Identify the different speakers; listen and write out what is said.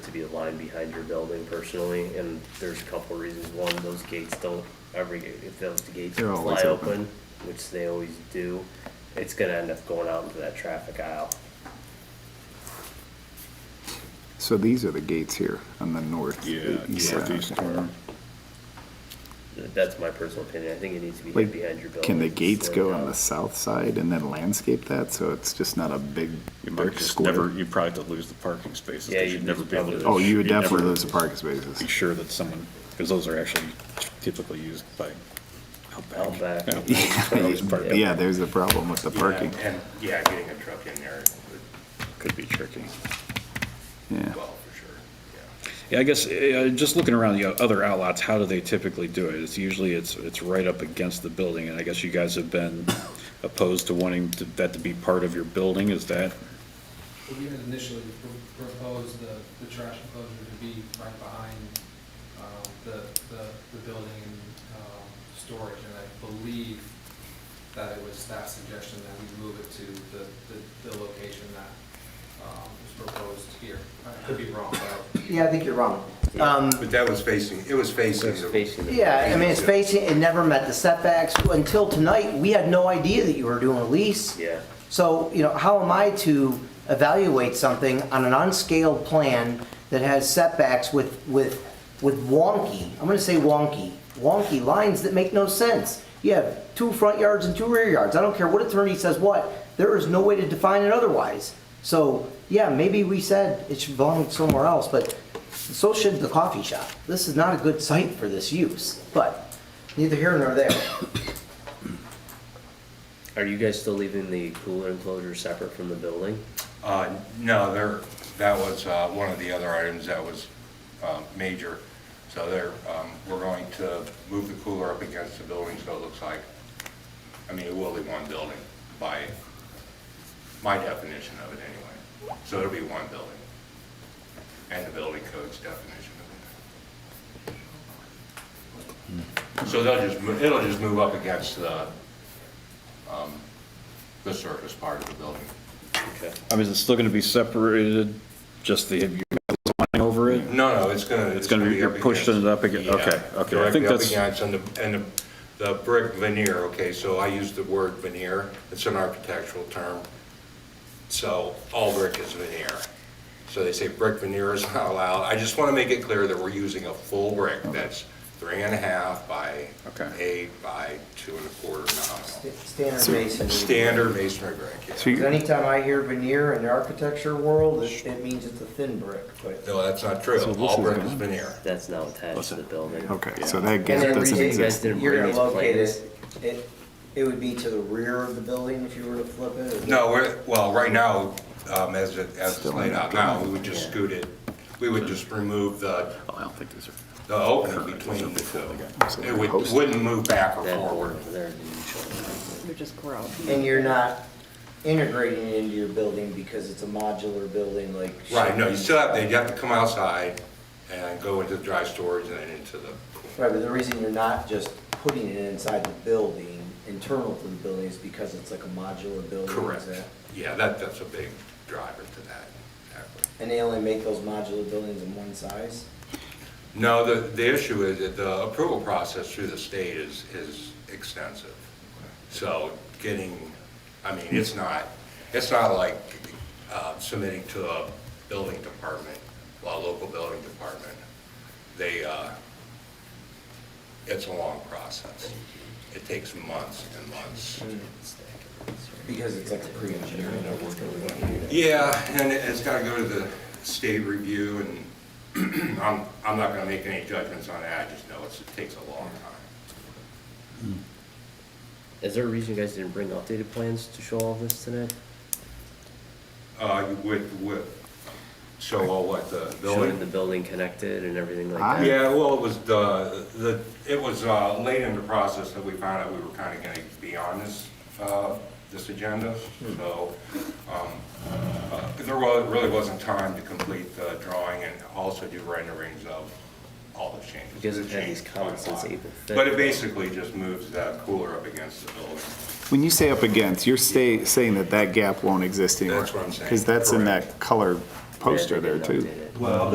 Speaker 1: to be the line behind your building personally, and there's a couple of reasons. One, those gates don't, every, if those gates
Speaker 2: They're always
Speaker 1: fly
Speaker 2: open.
Speaker 1: open, which they always do, it's gonna end up going out into that traffic aisle.
Speaker 2: So these are the gates here on the north.
Speaker 3: Yeah,
Speaker 2: east side.
Speaker 3: northeast corner.
Speaker 1: That's my personal opinion. I think it needs to be hid
Speaker 2: Like,
Speaker 1: behind your building.
Speaker 2: Can the gates
Speaker 1: Slow
Speaker 2: go
Speaker 1: down.
Speaker 2: on the south side and then landscape that, so it's just not a big
Speaker 3: You might
Speaker 2: brick
Speaker 3: just never,
Speaker 2: square?
Speaker 3: you probably have to lose the parking spaces.
Speaker 1: Yeah,
Speaker 3: 'cause
Speaker 1: you'd
Speaker 3: you'd never
Speaker 1: lose
Speaker 3: be able
Speaker 1: probably-
Speaker 3: to.
Speaker 2: Oh, you would
Speaker 3: you'd
Speaker 2: definitely
Speaker 3: never
Speaker 2: lose the parking
Speaker 3: Be
Speaker 2: spaces.
Speaker 3: sure that someone, because those are actually typically used by Outback.
Speaker 1: Outback.
Speaker 3: Yeah, they always park out
Speaker 2: Yeah,
Speaker 3: there.
Speaker 2: there's the problem with the parking,
Speaker 4: Yeah, And, yeah, getting a truck in there would,
Speaker 3: Could be tricky.
Speaker 2: yeah.
Speaker 4: well, for sure, yeah.
Speaker 3: Yeah, I guess, uh, just looking around the other outlots, how do they typically do it? It's usually, it's, it's right up against the building, and I guess you guys have been opposed to wanting to- that to be part of your building, is that?
Speaker 5: Well, We had initially pr- proposed the, the trash enclosure to be right behind um, the, the, the building um, storage, and I believe that it was staff's suggestion that we move it to the, the, the location that um, was proposed here. I could be wrong, but
Speaker 6: Yeah, I think you're wrong. Um,
Speaker 4: But that was facing, it was facing.
Speaker 1: It's facing the-
Speaker 6: Yeah, I mean, it's facing, it never met the setbacks. Until tonight, we had no idea that you were doing a lease.
Speaker 1: Yeah.
Speaker 6: So, you know, how am I to evaluate something on an unscaled plan that has setbacks with, with, with wonky, I'm gonna say wonky, wonky lines that make no sense? You have two front yards and two rear yards. I don't care what attorney says what, there is no way to define it otherwise. So, yeah, maybe we said it should belong somewhere else, but so should the coffee shop. This is not a good site for this use, but neither here nor there.
Speaker 1: Are you guys still leaving the cooler enclosure separate from the building?
Speaker 7: Uh, No, there, that was uh, one of the other items that was um, major. So there, um, we're going to move the cooler up against the building, so it looks like, I mean, it will be one building by my definition of it anyway. So it'll be one building, and the building code's definition of it. So they'll just, mo- it'll just move up against the, um, the surface part of the building.
Speaker 1: Okay.
Speaker 3: I mean, is it still gonna be separated, just the, you line over it?
Speaker 7: No, no, it's gonna.
Speaker 3: It's gonna be- you're
Speaker 7: up
Speaker 3: pushing
Speaker 7: against-
Speaker 3: it up again-
Speaker 7: Yeah,
Speaker 3: okay, okay, I think
Speaker 7: Directly up
Speaker 3: that's-
Speaker 7: against, and the, and the, the brick veneer, okay, so I use the word veneer, it's an architectural term. So all brick is veneer. So they say brick veneer is not allowed. I just wanna make it clear that we're using a full brick that's three and a half by
Speaker 3: Okay.
Speaker 7: eight by two and a quarter nominal.
Speaker 6: Standard masonry.
Speaker 7: Standard masonry brick,
Speaker 2: So
Speaker 7: yeah.
Speaker 2: you-
Speaker 6: Anytime I hear veneer in the architecture world, it, it means it's a thin brick, but.
Speaker 7: No, that's not true.
Speaker 2: So this
Speaker 7: All
Speaker 2: is
Speaker 7: brick
Speaker 2: gone.
Speaker 7: is veneer.
Speaker 1: That's now attached to the building.
Speaker 2: Okay, so that
Speaker 6: And
Speaker 2: gate
Speaker 6: then
Speaker 2: doesn't
Speaker 6: re-
Speaker 2: exist.
Speaker 1: didn't
Speaker 6: You're
Speaker 1: bring
Speaker 6: gonna
Speaker 1: these
Speaker 6: locate
Speaker 1: plans.
Speaker 6: it, it, it would be to the rear of the building if you were to flip it? or-
Speaker 7: No, we're, well, right now, um, as it, as it's
Speaker 2: Still
Speaker 7: laid
Speaker 2: not
Speaker 7: out now,
Speaker 2: good.
Speaker 7: we would just
Speaker 1: Yeah.
Speaker 7: scoot it, we would just remove the,
Speaker 3: Oh, I don't think these are.
Speaker 7: the opening between the
Speaker 2: So
Speaker 7: two. It
Speaker 2: they're
Speaker 7: would,
Speaker 2: posted.
Speaker 7: wouldn't move back or
Speaker 1: That
Speaker 7: forward.
Speaker 1: over there didn't show it.
Speaker 8: They're just gross.
Speaker 6: And you're not integrating it into your building because it's a modular building like.
Speaker 7: Right, no, you still have, to. you have to come outside and go into the dry storage and then into the cooling.
Speaker 6: Right, but the reason you're not just putting it inside the building, internal to the building, is because it's like a modular building. is
Speaker 7: Correct.
Speaker 6: that-
Speaker 7: Yeah, that, that's a big driver to that, exactly.
Speaker 6: And they only make those modular buildings in one size?
Speaker 7: No, the, the issue is that the approval process through the state is, is extensive. So getting, I mean, it's not, it's not like uh, submitting to a building department, a local building department. They, uh, it's a long process. It takes months and months.
Speaker 6: Because it's like a pre-engineering.
Speaker 7: Yeah, and it- it's gotta go to the state review and I'm, I'm not gonna make any judgments on that, I just know it's, it takes a long time.
Speaker 1: Is there a reason you guys didn't bring updated plans to show all this tonight?
Speaker 7: Uh, you with, with, so all what, the
Speaker 1: Showing the
Speaker 7: building?
Speaker 1: building connected and everything like
Speaker 2: I-
Speaker 1: that?
Speaker 7: Yeah, well, it was the, the, it was, uh, late in the process that we found out we were kinda gonna be on this, uh, this agenda, so, um, uh, there was, really wasn't time to complete the drawing and also do renderings of all the changes.
Speaker 1: Because it had these
Speaker 7: Change
Speaker 1: comments since
Speaker 7: timeline.
Speaker 1: April fifth.
Speaker 7: But it basically just moves that cooler up against the building.
Speaker 2: When you say up against, you're stay, saying that that gap won't exist anymore.
Speaker 7: That's what I'm saying,
Speaker 2: Because that's in
Speaker 7: correct.
Speaker 2: that color
Speaker 1: Yeah, they
Speaker 2: poster there
Speaker 1: didn't
Speaker 2: too.
Speaker 1: update it.
Speaker 7: Well,